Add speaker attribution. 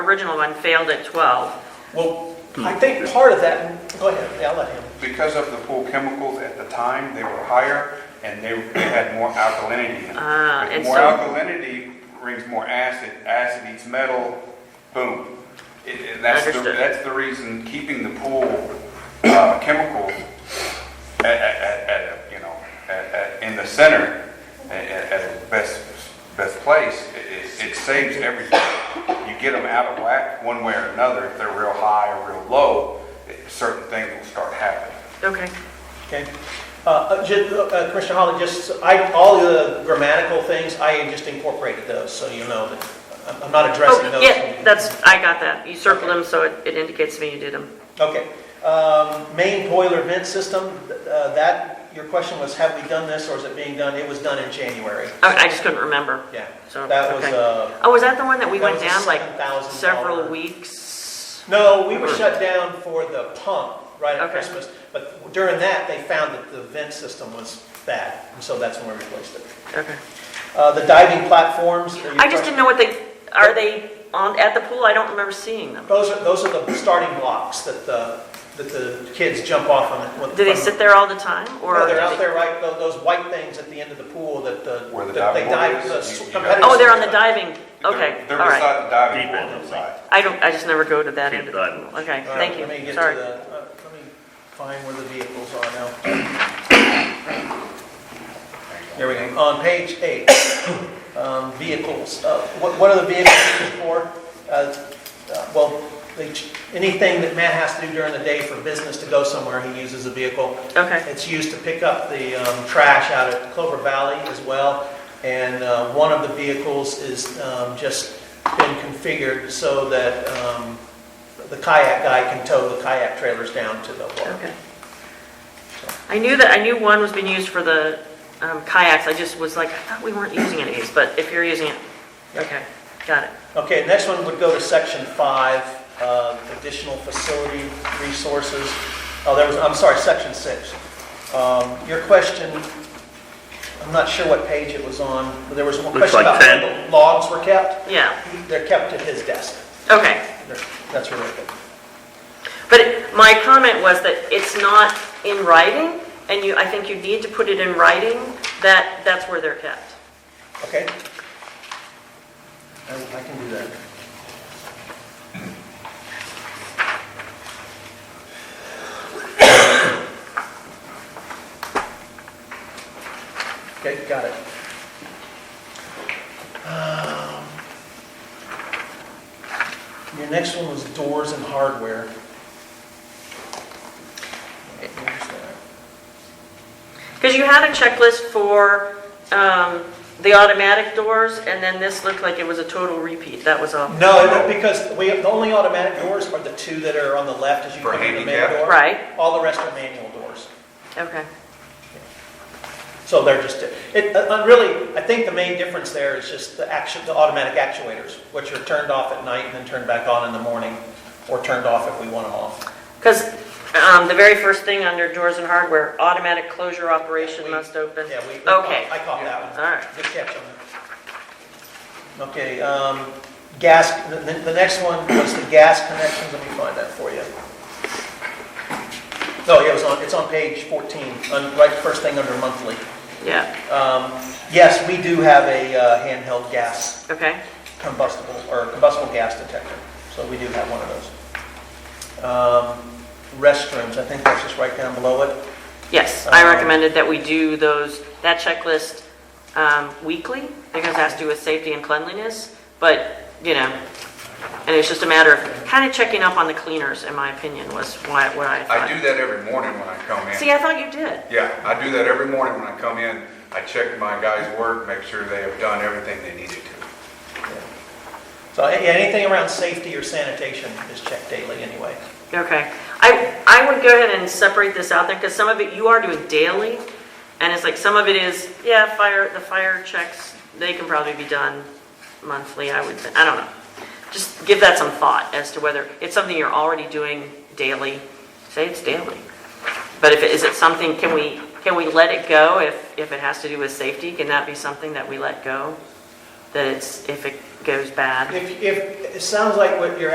Speaker 1: original one failed at 12.
Speaker 2: Well,
Speaker 3: I think part of that, go ahead, yeah, I'll let him.
Speaker 2: because of the pool chemicals at the time, they were higher and they they had more alkalinity in them.
Speaker 1: Ah,
Speaker 2: With
Speaker 1: and
Speaker 2: More
Speaker 1: so,
Speaker 2: alkalinity brings more acid, acid eats metal, boom. It- it- That's the,
Speaker 1: Understood.
Speaker 2: that's the reason keeping the pool uh, chemicals at, at, at- at, a, you know, at, at, in the center, at, at at its best, best place, it, it- it saves everything. You get them out of whack one way or another, if they're real high or real low, it- certain things will start happening.
Speaker 1: okay,
Speaker 3: Okay. Uh, uh, ju- uh, Commissioner Holly, just, I, all the grammatical things, I just incorporated those, so you know that I'm- I'm not addressing
Speaker 1: oh,
Speaker 3: those.
Speaker 1: yeah, that's, I got that, you circled them, so it it indicates to me you did them.
Speaker 3: Okay. Um, Main boiler vent system, uh, that, your question was, have we done this or is it being done? It was done in January.
Speaker 1: I I just couldn't remember,
Speaker 3: Yeah.
Speaker 1: so,
Speaker 3: That was,
Speaker 1: okay.
Speaker 3: uh,
Speaker 1: Oh, was that the one that we
Speaker 3: that
Speaker 1: went
Speaker 3: was a
Speaker 1: down like
Speaker 3: $7,000
Speaker 1: several weeks?
Speaker 3: No, we were shut down for the pump right at
Speaker 1: Okay.
Speaker 3: Christmas, but during that, they found that the vent system was bad, and so that's when we replaced it.
Speaker 1: Okay.
Speaker 3: Uh, The diving platforms. are your
Speaker 1: I just
Speaker 3: first-
Speaker 1: didn't know what they, are they on, at the pool? I don't remember seeing them.
Speaker 3: Those are, those are the starting blocks that the, that the kids jump off on. it when-
Speaker 1: Do they
Speaker 3: from-
Speaker 1: sit there all the time, or?
Speaker 3: No,
Speaker 1: do
Speaker 3: they're out
Speaker 1: they-
Speaker 3: there, right, tho- those white things at the end of the pool that the.
Speaker 2: Where the
Speaker 3: that they
Speaker 2: diving
Speaker 3: dive-
Speaker 2: board
Speaker 3: the
Speaker 2: is, you-
Speaker 3: s-
Speaker 2: you got-
Speaker 3: competitors-
Speaker 1: Oh, they're on the diving, okay, all
Speaker 2: They're they're
Speaker 1: right.
Speaker 2: beside the diving
Speaker 4: Deep end,
Speaker 2: board side.
Speaker 1: I don't, I just never go to that
Speaker 4: Keep
Speaker 1: end of the
Speaker 4: diving.
Speaker 1: pool. Okay,
Speaker 3: All right,
Speaker 1: thank you,
Speaker 3: Let me get to the,
Speaker 1: sorry.
Speaker 3: uh, let me find where the vehicles are now. There we go. On page eight, um, vehicles, Uh, what what are the vehicles used for? Uh, uh, Well, they ch- anything that Matt has to do during the day for business to go somewhere, he uses a vehicle.
Speaker 1: Okay,
Speaker 3: It's used to pick up the um, trash out at Clover Valley as well. And uh, one of the vehicles is um, just been configured so that um, the kayak guy can tow the kayak trailers down to the water.
Speaker 1: okay. I knew that, I knew one was being used for the um, kayaks, I just was like, I thought we weren't using any of these, but if you're using it, okay, got it.
Speaker 3: Okay, next one would go to section five, uh, additional facility resources. Oh, there was, I'm sorry, section six. Um, Your question, I'm not sure what page it was on, but there was one
Speaker 4: Looks
Speaker 3: question
Speaker 4: like
Speaker 3: about
Speaker 4: 10.
Speaker 3: where the logs were kept.
Speaker 1: Yeah,
Speaker 3: They're kept at his desk.
Speaker 1: okay.
Speaker 3: That's really good.
Speaker 1: But it- my comment was that it's not in writing, and you, I think you need to put it in writing, that, that's where they're kept.
Speaker 3: Okay? I I can do that. Okay, got it. Um, Your next one was doors and hardware. Where's that?
Speaker 1: Because you had a checklist for um, the automatic doors, and then this looked like it was a total repeat, that was all.
Speaker 3: No, no, because we, the only automatic doors are the two that are on the left as you
Speaker 2: For
Speaker 3: come in the main
Speaker 2: handicap?
Speaker 3: door.
Speaker 1: Right.
Speaker 3: All the rest are manual doors.
Speaker 1: Okay,
Speaker 3: So they're just, it, uh, really, I think the main difference there is just the action, the automatic actuators, which are turned off at night and then turned back on in the morning, or turned off if we want them off.
Speaker 1: because um, the very first thing under doors and hardware, automatic closure operation
Speaker 3: We-
Speaker 1: must open.
Speaker 3: Yeah, we, we caught-
Speaker 1: Okay,
Speaker 3: I caught that one.
Speaker 1: all right,
Speaker 3: Good catch on that. Okay, um, gas, the, the next one was the gas connections, let me find that for you. No, yeah, it was on, it's on page 14, on, right, first thing under monthly.
Speaker 1: yeah,
Speaker 3: Um, yes, we do have a uh, handheld gas
Speaker 1: okay,
Speaker 3: combustible, or combustible gas detector, so we do have one of those. Um, Restrooms, I think that's just right down below it.
Speaker 1: yes, I
Speaker 3: Um,
Speaker 1: recommended that we do those, that checklist um, weekly, because it has to do with safety and cleanliness, but, you know, and it's just a matter of kind of checking up on the cleaners, in my opinion, was why, what I thought.
Speaker 5: I do that every morning when I come in.
Speaker 1: See, I thought you did.
Speaker 5: Yeah, I do that every morning when I come in. I check my guys' work, make sure they have done everything they needed to.
Speaker 3: So a- anything around safety or sanitation is checked daily anyway.
Speaker 1: Okay. I, I would go ahead and separate this out there because some of it you are doing daily. And it's like, some of it is, yeah, fire, the fire checks, they can probably be done monthly, I would, thi- I don't know. Just give that some thought as to whether it's something you're already doing daily, say it's daily. But if, it is it something, can we, can we let it go if, if it has to do with safety? Can that be something that we let go? That it's, if it goes bad.
Speaker 3: If, if, it sounds like what you're